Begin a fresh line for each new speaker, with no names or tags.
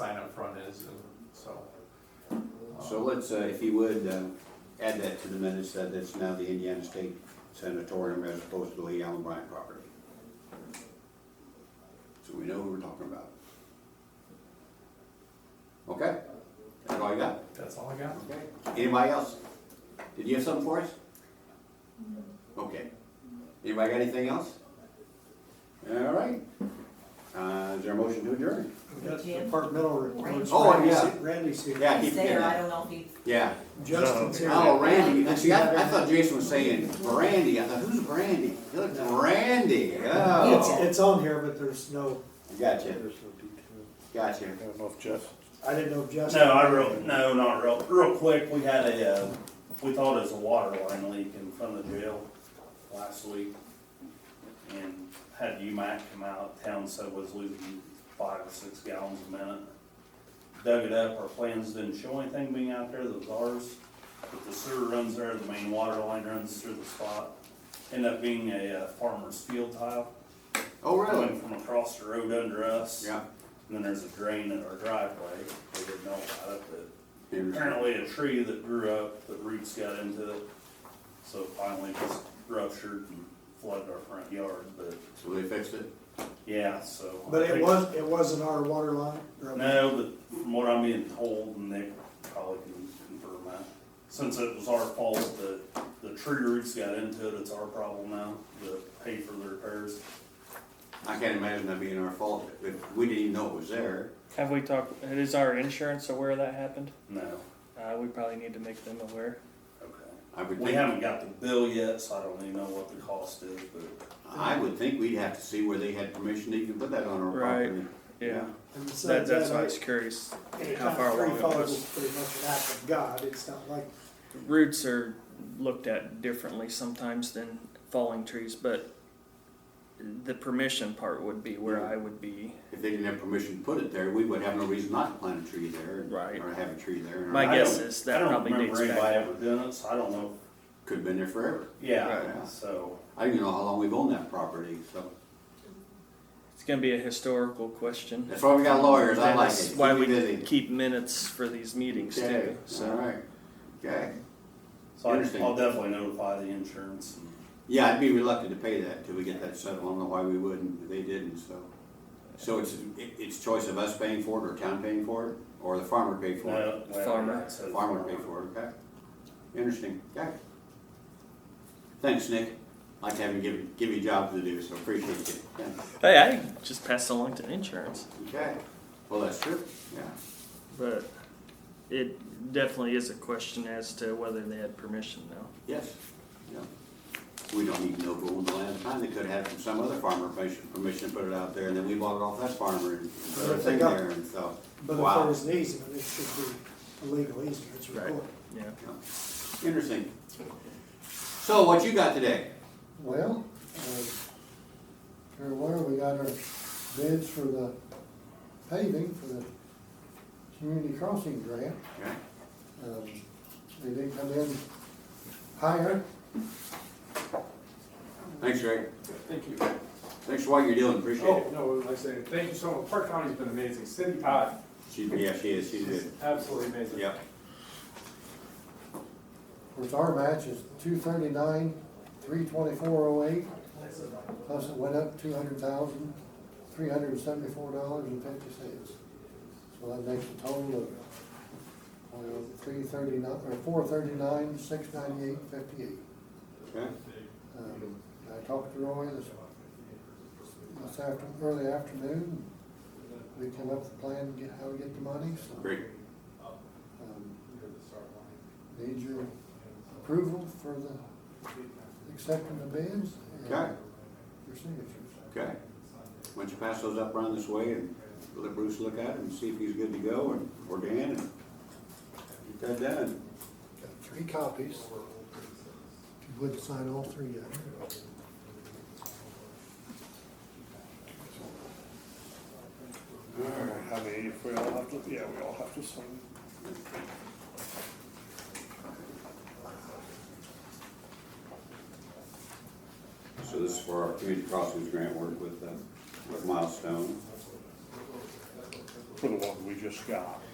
um,
So let's, uh, if you would, um, add that to the minutes, that it's now the Indiana State Sanatorium as opposed to the Lee Allen Bryant property. So we know who we're talking about. Okay? That's all you got?
That's all I got.
Okay. Anybody else? Did you have something for us? Okay. Anybody got anything else? All right. Uh, is there a motion to adjourn?
That's
Jim?
departmental reports.
Oh,
Randy's-
yeah.
Randy's here.
Yeah, keep
He's there, I
that.
don't know if he,
Yeah.
Justin's here.
Oh, Randy, and see, I, I thought Jason was saying Brandy, I thought, who's Brandy? He looked, Randy,
It's,
oh.
it's on here, but there's no,
Gotcha,
There's no detail.
gotcha.
I don't know if Jeff
I didn't know if Justin.
No, I real, no, not real, real quick, we had a, uh, we thought it was a water line leak in front of the jail last week. And had UMAC come out, town said was losing five or six gallons a minute. Dug it up, our plans didn't show anything being out there that was ours, but the sewer runs there, the main water line runs through the spot. Ended up being a uh, farmer's field tile,
Oh, really?
coming from across the road under us.
Yeah.
And then there's a drain in our driveway, we didn't know about it, but
Interesting.
apparently a tree that grew up, the roots got into it, so it finally just ruptured and flooded our front yard, but,
So they fixed it?
yeah, so. I
But it
think-
was, it wasn't our water line. or-
No, but from what I'm being told, and they probably can confirm that, since it was our fault that the tree roots got into it, it's our problem now, to pay for the repairs.
I can't imagine that being our fault, but we didn't even know it was there.
Have we talked, is our insurance aware that happened?
No,
Uh, we probably need to make them aware.
okay.
I would
We
think,
haven't got the bill yet, so I don't even know what the cost is, but
I would think we'd have to see where they had permission to even put that on our
Right.
property.
Yeah,
And
that,
besides
that's
that,
why I was curious
it
how far
kinda
along it
follows
was.
Pretty much an act of God, it's not like,
Roots are looked at differently sometimes than falling trees, but the permission part would be where I would be.
If they didn't have permission to put it there, we would have no reason not to plant a tree there.
Right.
Or have a tree there.
My
I
guess
don't-
is
I
that
don't
probably
remember
dates
anybody
back.
ever doing it, so I don't know if
Could've been there forever.
Yeah,
Right.
so,
I don't even know how long we've owned that property, so.
It's gonna be a historical question.
That's why we got lawyers, I like
That's
it.
Why
Keep me
we
busy.
keep minutes for these meetings
Okay,
too,
All
so.
right, okay.
so I-
Interesting.
I'll definitely notify the insurance. and-
Yeah, I'd be reluctant to pay that till we get that settled. I don't know why we wouldn't, they didn't, so. So it's, it- it's choice of us paying for it or town paying for it, or the farmer pay for it?
No, well,
Farmer.
yeah, it says
Farmer pay for it, okay. Interesting, okay. Thanks, Nick. Like to have you give, give you a job to do, so appreciate it. Thanks.
Hey, I just passed along to insurance.
Okay, well, that's true, yeah.
But it definitely is a question as to whether they had permission now.
Yes, yeah. We don't even know who owned the land at the time. They could have had from some other farmer permission, permission to put it out there, and then we bought it off that farmer and put
But
it
if they
in
got-
there, and so,
but if there
wow.
was an easement, it should be a legal easement, it's
Right.
recorded.
Yeah.
Yeah. Interesting. So what you got today?
Well, uh, Fair Water, we got our bids for the paving for the community crossing grant.
Yeah.
Um, They didn't come in higher,
Thanks, Greg.
Thank you.
Thanks for what you're doing. Appreciate
Oh,
it.
no, like I said, thank you so much. Park County's been amazing. Cindy Todd,
She's, yeah, she is. She's
she's
good.
absolutely amazing.
Yep.
Of course, our match is two thirty-nine, three twenty-four oh eight. Plus it went up two hundred thousand, three hundred and seventy-four dollars and fifty cents. So that makes a total of three thirty-nine, or four thirty-nine, six ninety-eight, fifty-eight.
Okay.
Um, I talked to Roy this, this after, early afternoon. We came up with a plan, to get, how to get the money, so.
Great.
um, Need your approval for the, accepting the bids? and
Okay.
Your signatures.
Okay. Why don't you pass those up around this way and let Bruce look at it and see if he's good to go and, or Dan and get that done.
Got three copies. If you would sign all three of them.
All right, I mean, if we all have to, yeah, we all have to sign.
So this is for our community crossings grant work with, uh, with Milestone.
for the one we just got.